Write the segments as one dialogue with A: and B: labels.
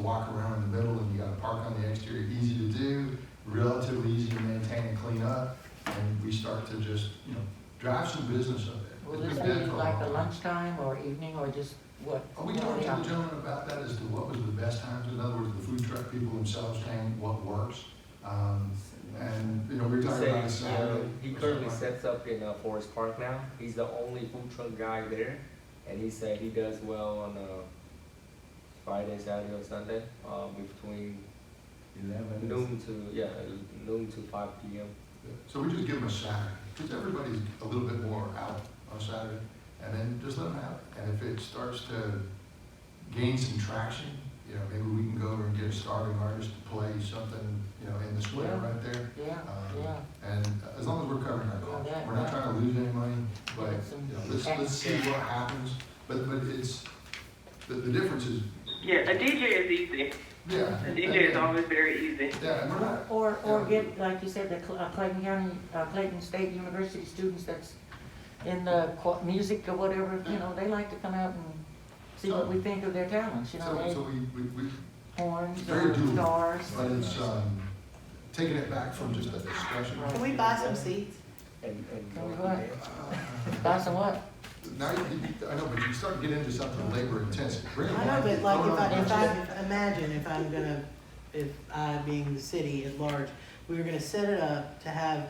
A: walk around in the middle and you gotta park on the exterior, easy to do, relatively easy to maintain and clean up, and we start to just, you know, drive some business of it.
B: Will
A: It's
B: this
A: been dead
B: be
A: for a
B: like
A: long
B: a
A: time.
B: lunchtime or evening or just what?
A: Are Oh, we
B: what
A: talking to the
B: time?
A: gentleman about that as to what was the best times? In other words, the food truck people themselves saying what works? Um, and, you know, we were
C: He
A: talking about a
C: says,
A: Saturday.
C: um, He
A: or something
C: currently
A: like
C: sets up in uh, Forest Park now. He's the only food truck guy there, and he said he does well on uh, Friday, Saturday, or Sunday, uh, between noon to yeah noon to five p.m.
A: that. So we just give them a Saturday, because everybody's a little bit more out on Saturday, and then just let them have it. And if it starts to gain some traction, you know, maybe we can go over and get a starving artist to play something, you know, in the square
B: Yeah.
A: right there.
B: Yeah,
A: Um,
B: yeah.
A: And as long as we're covering our costs, we're not trying to lose any money, but, you know, let's, let's see what happens. But, but it's, the, the difference is,
D: Yeah, a DJ is easy.
A: yeah.
D: A DJ is always very easy.
A: Yeah, and we're not,
B: Or, or get, like you said, the Cl- uh, Clayton County, uh, Clayton State University students that's in the qu- music or whatever, you know, they like to come out and see what we think of their talents, you know,
A: so, so
B: they
A: we, we, we,
B: horns
A: Very
B: or
A: doable.
B: guitars.
A: but it's, um, taking it back from just a discussion.
B: Right.
E: Can we buy some seeds?
C: And and
B: Can we go
C: go from
B: ahead?
C: there.
A: Uh,
B: That's a what?
A: Now, you, you- I know, but you start to get into something labor intensive. Bring it
E: I know,
A: on.
E: but like if I, if
A: Throw it on.
E: I, imagine if I'm gonna, if I being the city at large, we were gonna set it up to have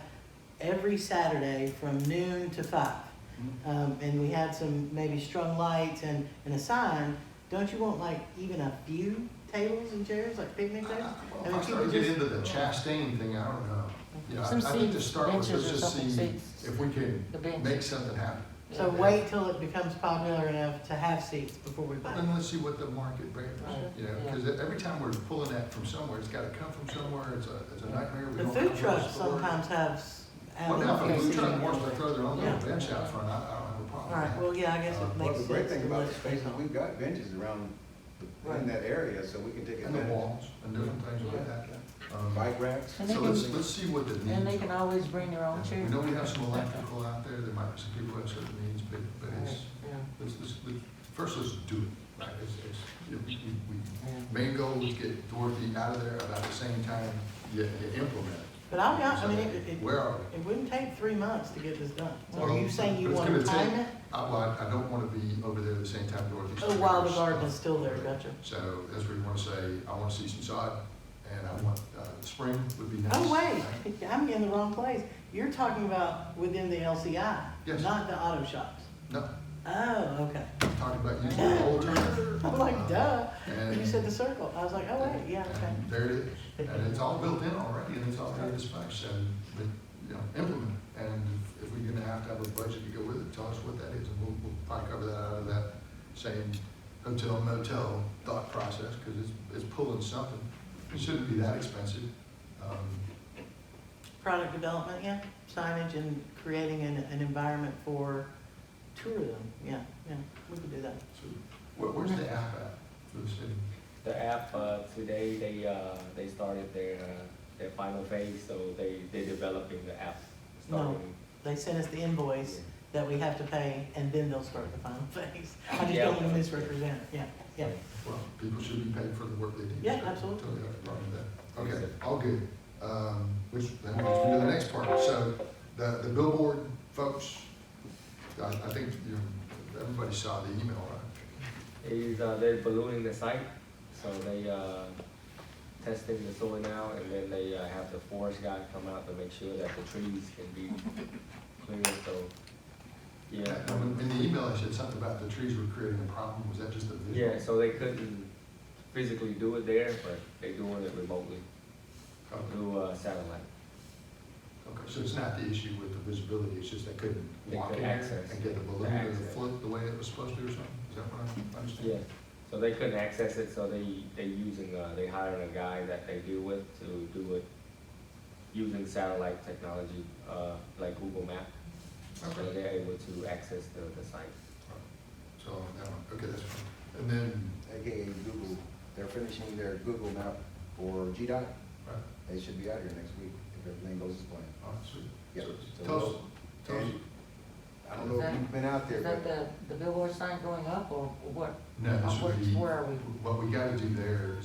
E: every Saturday from noon to five.
A: Hmm?
E: Um, and we had some maybe strung lights and, and a sign, don't you want like even a few tables and chairs, like picnic
A: I- I-
E: tables?
A: well, If I start to get into the Chastain thing, I don't know. You know, I I
B: Some
A: think to
B: seats,
A: start with, let's
B: benches or
A: just
B: something,
A: see
B: seats.
A: if we can
B: The bench.
A: make something happen.
E: So wait till it becomes popular enough to have seats before we buy.
A: Then let's see what the market bears,
B: Right.
A: you know, because every time we're pulling that from somewhere, it's gotta come from somewhere, it's a, it's a nightmare. We
E: The
A: don't
E: food
A: know where to
E: trucks
A: store it.
E: sometimes have. s-
A: Well, now, if a
B: Okay,
A: food
B: so
A: truck
B: you-
A: wants to throw their own little
E: Yeah.
A: bench out front, I, I don't have a problem with
E: All
A: that.
E: right, well, yeah, I guess
A: Uh,
E: it
F: Well,
E: makes
F: the
E: sense.
F: great thing
E: to
F: about
E: let-
F: the space is we've got benches around, the- in that area, so we can take
A: And the
F: advantage.
A: walls and different things like that. Um,
F: Bike racks.
B: And they
A: So let's,
B: can,
A: let's see what the
B: and they
A: needs
B: can
A: are.
B: always bring their own
A: We
B: chairs.
A: know we have some electrical out there, there might be some people who have certain needs, but, but it's,
B: Yeah,
A: let's, let's, let's- first let's do it. Right, it's, it's, you know, we, we,
B: yeah.
A: main goal is get Dorothy out of there about the same time you, you implement it.
E: But I'll be honest, I mean,
A: So,
E: it, it,
A: Where are we?
E: it wouldn't take three months to get this done. So
A: Well,
E: are you saying you
A: but it's
E: want to
A: gonna
E: time
A: take-
E: it?
A: I, well, I I don't wanna be over there at the same time Dorothy's.
E: Oh, while the garden is still there, gotcha.
A: So that's where you wanna say, I wanna see some sod, and I want, uh, spring would be nice.
E: Oh, wait, I'm in the wrong place. You're talking about within the LCI,
A: Yes.
E: not the auto shops.
A: No,
E: Oh, okay.
A: I'm talking about using the old term.
E: I'm like, duh,
A: And-
E: you said the circle. I was like, oh, wait, yeah, okay.
A: And there it is, and it's all built in already, and it's already dispatched, and, but, you know, implement. it. And if we're gonna have to have a budget to go with it, tell us what that is, and we'll, we'll probably cover that out of that same hotel motel thought process, because it's, it's pulling something. It shouldn't be that expensive. Um,
E: Product development, yeah, signage and creating an, an environment for tourism, yeah, yeah, we could do that.
A: so, where, where's the app at for the city?
C: The app uh, today they uh, they started their uh, their final phase, so they they developing the app.
E: No.
C: Starting,
E: They sent us the invoice that we have to pay, and then they'll start the final phase. I just
C: Yeah.
E: don't want to misrepresent, yeah, yeah.
A: Well, people should be paid for the work they do.
E: Yeah,
A: so
E: absolutely.
A: Totally have a problem with that. Okay, all good. Um, which, then we just do the next part. So the, the billboard folks, I, I think, you know, everybody saw the email, right?
C: is uh, they're ballooning the site, so they uh, testing the soil now, and then they uh, have the forest guy come out to make sure that the trees can be cleared. So yeah,
A: And when- In the email, I said something about the trees were creating a problem. Was that just a visual?
C: yeah. So they couldn't physically do it there, but they're doing it remotely
A: Okay,
C: through uh, satellite.
A: okay. so it's not the issue with the visibility, it's just they couldn't
C: They
A: walk in
C: couldn't
A: there
C: access.
A: and get the balloon
C: The
A: to
C: access.
A: float the way it was supposed to or something? Is that what I understand?
C: Yeah, so they couldn't access it, so they, they using, uh, they hiring a guy that they deal with to do it using satellite technology, uh, like Google Map. So
A: Okay.
C: they're able to access the, the site.
A: So, that one, okay, that's fine. And then,
F: AKA Google, they're finishing their Google map for GDOT.
A: right,
F: They should be out here next week if everything goes as planned.
A: all right, sweet.
F: Yeah.
A: So,
F: so
A: Tell us,
F: we'll-
A: tell us.
F: and I don't know if you've been out there,
B: Is that
F: but
B: the, the billboard sign going up or what?
A: No, this
B: Where-
A: would be,
B: Where are we?
A: what we gotta do there